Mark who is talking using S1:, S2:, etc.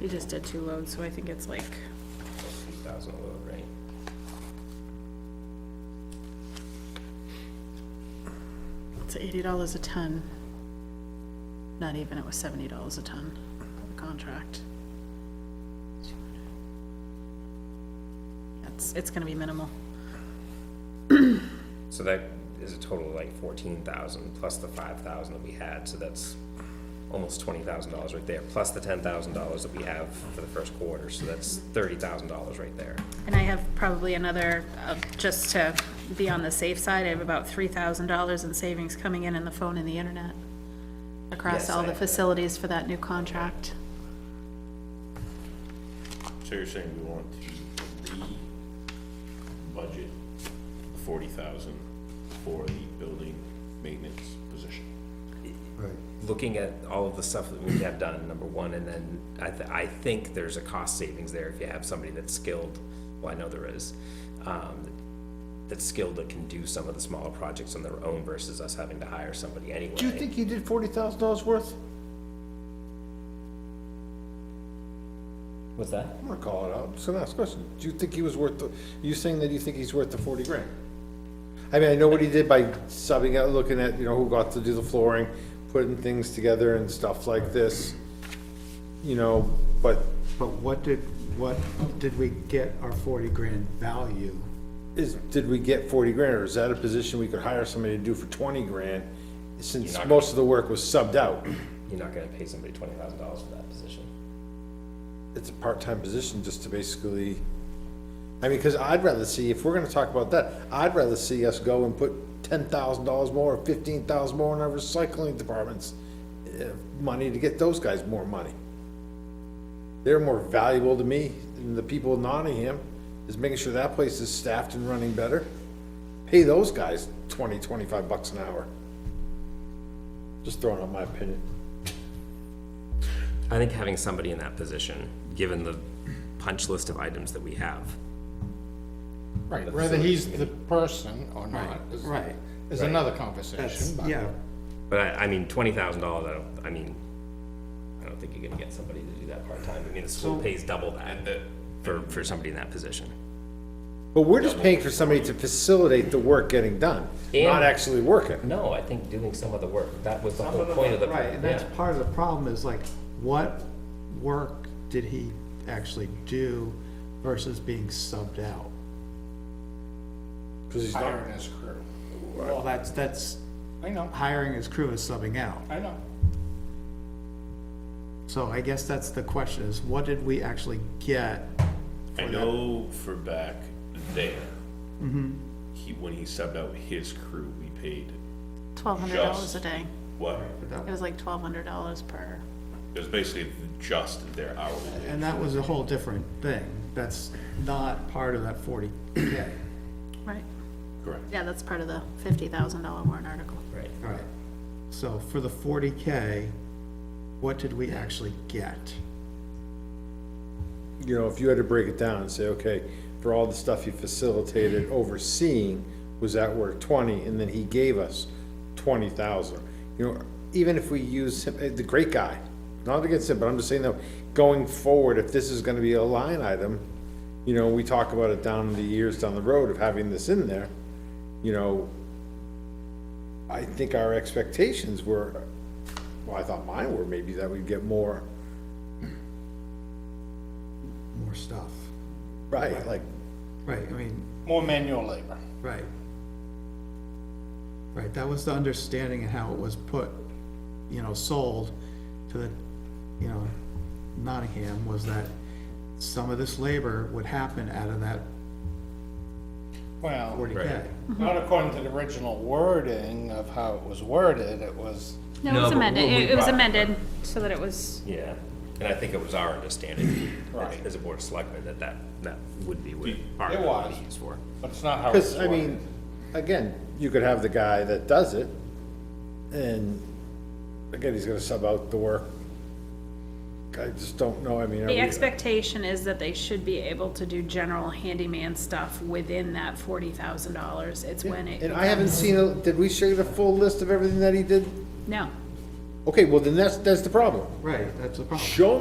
S1: You just did two loads, so I think it's like,
S2: two thousand a load, right?
S1: it's eighty dollars a ton. Not even, it was seventy dollars a ton, the contract. It's, it's gonna be minimal.
S2: So that is a total of like fourteen thousand, plus the five thousand that we had, so that's almost twenty thousand dollars right there, plus the ten thousand dollars that we have for the first quarter, so that's thirty thousand dollars right there.
S1: And I have probably another, uh, just to be on the safe side, I have about three thousand dollars in savings coming in in the phone and the internet. Across
S2: Yes,
S1: all
S2: I
S1: the
S2: have that.
S1: facilities for that new contract.
S3: So you're saying we want to re-budget forty thousand for the building maintenance position?
S4: Right.
S2: Looking at all of the stuff that we have done, number one, and then I, th- I think there's a cost savings there if you have somebody that's skilled, well, I know there is, um, that's skilled that can do some of the smaller projects on their own versus us having to hire somebody anyway.
S4: Do you think you did forty thousand dollars worth?
S2: What's that?
S4: I'm gonna call it out, just gonna ask a question. Do you think he was worth, the? are you saying that you think he's worth the forty grand? I mean, I know what he did by subbing out, looking at, you know, who got to do the flooring, putting things together and stuff like this. You know, but
S5: But what did, what did we get our forty grand value?
S4: is, did we get forty grand, or is that a position we could hire somebody to do for twenty grand? Since
S2: You're not-
S4: most of the work was subbed out,
S2: You're not gonna pay somebody twenty thousand dollars for that position.
S4: it's a part-time position just to basically, I mean, cause I'd rather see, if we're gonna talk about that, I'd rather see us go and put ten thousand dollars more, or fifteen thousand more in our recycling departments, eh, money to get those guys more money. They're more valuable to me than the people in Nottingham, is making sure that place is staffed and running better. Pay those guys twenty, twenty-five bucks an hour. Just throwing out my opinion.
S2: I think having somebody in that position, given the punch list of items that we have,
S6: Right, whether he's the person or not is,
S5: right,
S6: is another conversation, but
S5: Yeah,
S2: but I, I mean, twenty thousand dollars, I don't, I mean, I don't think you're gonna get somebody to do that part-time. I mean, the school pays double that for, for somebody in that position.
S4: But we're just paying for somebody to facilitate the work getting done, not
S2: And-
S4: actually working.
S2: No, I think doing some of the work, that was the whole point of the.
S5: right, and that's
S2: yeah.
S5: part of the problem is like, what work did he actually do versus being subbed out?
S4: Because he's not,
S6: hiring his crew.
S5: Well, that's, that's,
S6: I know,
S5: hiring his crew is subbing out.
S6: I know.
S5: So I guess that's the question is, what did we actually get?
S3: I know for back there, he, when he subbed out his crew, we paid
S1: Twelve hundred dollars a
S3: Just-
S1: day.
S3: what?
S1: It was like twelve hundred dollars per.
S3: It was basically just their hourly rate.
S5: And that was a whole different thing. That's not part of that forty K.
S1: Right.
S3: Correct.
S1: Yeah, that's part of the fifty thousand dollar warrant article.
S2: Right,
S5: All right, so for the forty K, what did we actually get?
S4: you know, if you had to break it down and say, okay, for all the stuff he facilitated overseeing, was that worth twenty, and then he gave us twenty thousand. You know, even if we use him, eh, the great guy, not against him, but I'm just saying though, going forward, if this is gonna be a line item, you know, we talk about it down the years down the road of having this in there, you know, I think our expectations were, well, I thought mine were maybe that we'd get more,
S5: More stuff.
S4: right, like,
S5: Right, I mean,
S6: More manual labor.
S5: right. Right, that was the understanding and how it was put, you know, sold to the, you know, Nottingham was that some of this labor would happen out of that
S6: Well,
S5: forty K.
S6: not according to the original wording of how it was worded, it was,
S1: No, it was
S2: but
S1: amended,
S2: we- we
S1: it it was
S2: brought it
S1: amended so that it was,
S2: yeah, and I think it was our understanding
S6: Right.
S2: as a board of selectmen that that, that would be what part
S6: It
S2: of it was
S6: was.
S2: used for.
S6: but it's not how it's
S4: Because,
S6: worded.
S4: I mean, again, you could have the guy that does it, and again, he's gonna sub out the work. I just don't know, I mean. are
S1: the
S4: we-
S1: expectation is that they should be able to do general handyman stuff within that forty thousand dollars. It's when it.
S4: And I haven't seen, a- did we share the full list of everything that he did?
S1: No.
S4: Okay, well, then that's, that's the problem.
S5: Right, that's the problem.
S4: Show